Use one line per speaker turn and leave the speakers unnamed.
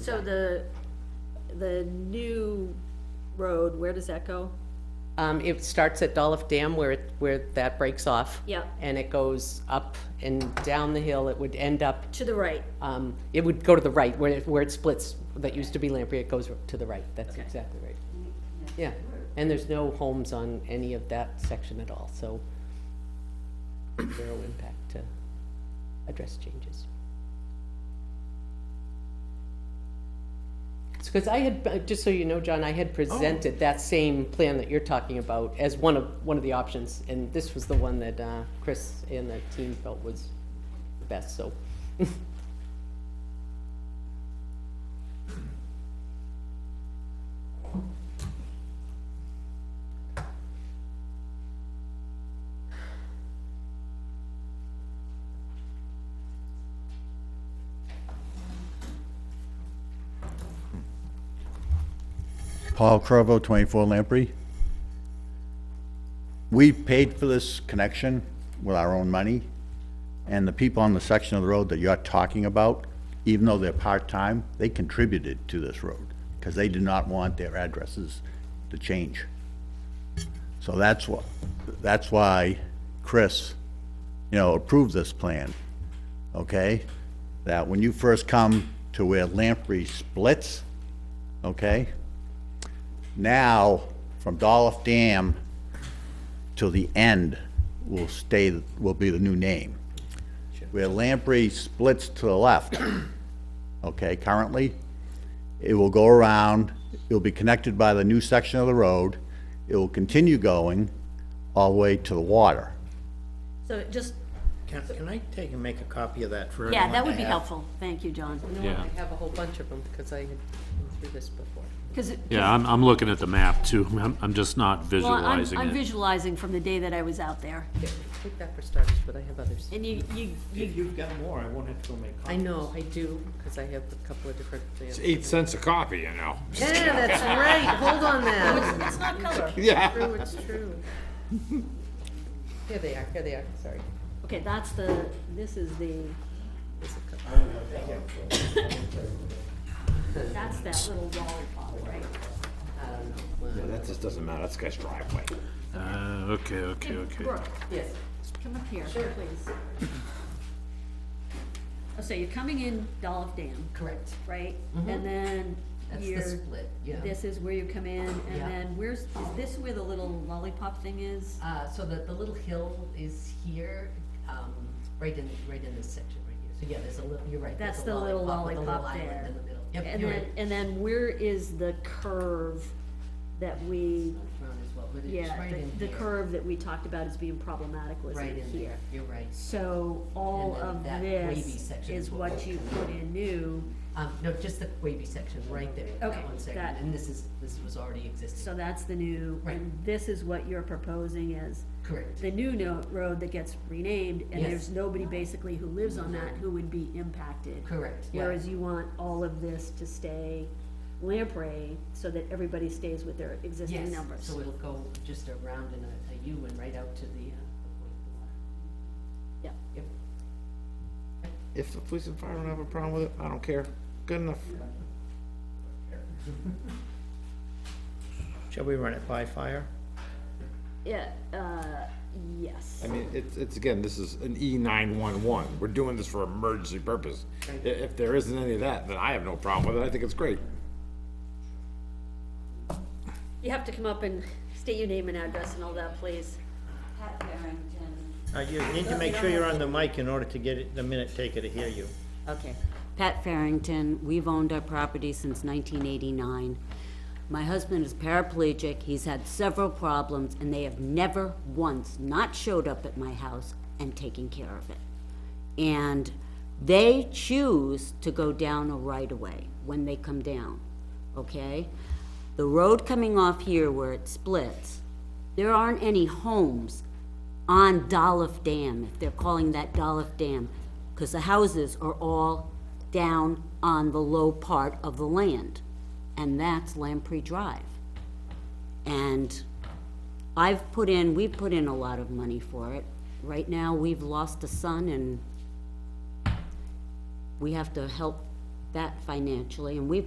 So the, the new road, where does that go?
Um, it starts at Dolph Dam where it, where that breaks off.
Yeah.
And it goes up and down the hill. It would end up,
To the right,
um, it would go to the right where it, where it splits, that used to be Lamprey, it goes to the right. That's
Okay.
exactly right. Yeah, and there's no homes on any of that section at all, so zero impact to address changes. because I had, uh, just so you know, John, I had presented that same plan that you're talking about as one of, one of the options, and this was the one that, uh, Chris and the team felt was the best, so.
Paul Crowe, 24 Lamprey. We paid for this connection with our own money, and the people on the section of the road that you're talking about, even though they're part-time, they contributed to this road, because they did not want their addresses to change. So that's why, that's why Chris, you know, approved this plan, okay? That when you first come to where Lamprey splits, okay? now, from Dolph Dam till the end will stay, will be the new name. Where Lamprey splits to the left, okay, currently, it will go around, it'll be connected by the new section of the road, it will continue going all the way to the water.
so it just,
Can, can I take and make a copy of that for everyone
Yeah, that would
to
be
have?
helpful, thank you, John.
I have a whole bunch of them, because I had been through this before.
Because,
Yeah, I'm, I'm looking at the map too. I'm, I'm just not
well, I'm,
visualizing
I'm
it.
visualizing from the day that I was out there,
Take that for starters, but I have others.
and you, you,
If you've got more, I won't have to go make copies.
I know, I do, because I have a couple of different plans.
eight cents a copy, you know.
Yeah, that's right, hold on that.
it's not color.
Yeah.
True, it's true.
Here they are, here they are, sorry.
okay, that's the, this is the. That's that little lollipop, right?
That just doesn't matter, that's guy's driveway.
Uh, okay, okay, okay.
Brooke,
Yes.
come up here, please.
Oh, So you're coming in Dolph Dam,
Correct.
right? And then
Mm-hmm. That's the
you're.
split, yeah.
This is where you come in, and
Yeah.
then where's, is this where the little lollipop thing is?
Uh, so the, the little hill is here, um, right in, right in this section right here. So yeah, there's a little, you're right. there's
That's
a
the little
with a
lollipop
island
there.
In the middle. Yep,
And
you're
then,
right.
and then where is the curve that we,
Around as well, but it's
yeah,
right in
the, the
here.
curve that we talked about as being problematic was
Right
in
in
here.
here, you're right.
So all
And then
of
that wavy
this
section
is
is what
what
we-
you put in new,
Um, no, just the wavy section, right there,
Okay,
that one section,
that-
and this is, this was already
so
existing,
that's the new, and
Right.
this is what you're proposing as
correct,
the new no- road that gets renamed, and
Yes.
there's nobody basically who lives on that who would be impacted.
correct, yeah.
Whereas you want all of this to stay Lamprey, so that everybody stays with their existing
Yes,
numbers.
so it'll go just around in a, a U and right out to the, uh, the point of the water.
Yep.
Yep.
If the police and fire don't have a problem with it, I don't care. Good enough.
Shall we run it by fire?
Yeah, uh, yes.
I mean, it's, it's, again, this is an E nine-one-one. We're doing this for emergency purpose. I- If there isn't any of that, then I have no problem with it. I think it's great.
You have to come up and state your name and address and all that, please.
Uh, you need to make sure you're on the mic in order to get it, the minute taker to hear you.
Okay. Pat Farrington, we've owned our property since 1989. My husband is paraplegic, he's had several problems, and they have never once not showed up at my house and taken care of it. And they choose to go down a right-of-way when they come down, okay? The road coming off here where it splits, there aren't any homes on Dolph Dam, if they're calling that Dolph Dam, because the houses are all down on the low part of the land, and that's Lamprey Drive. And I've put in, we've put in a lot of money for it. Right now, we've lost a son, and we have to help that financially, and we've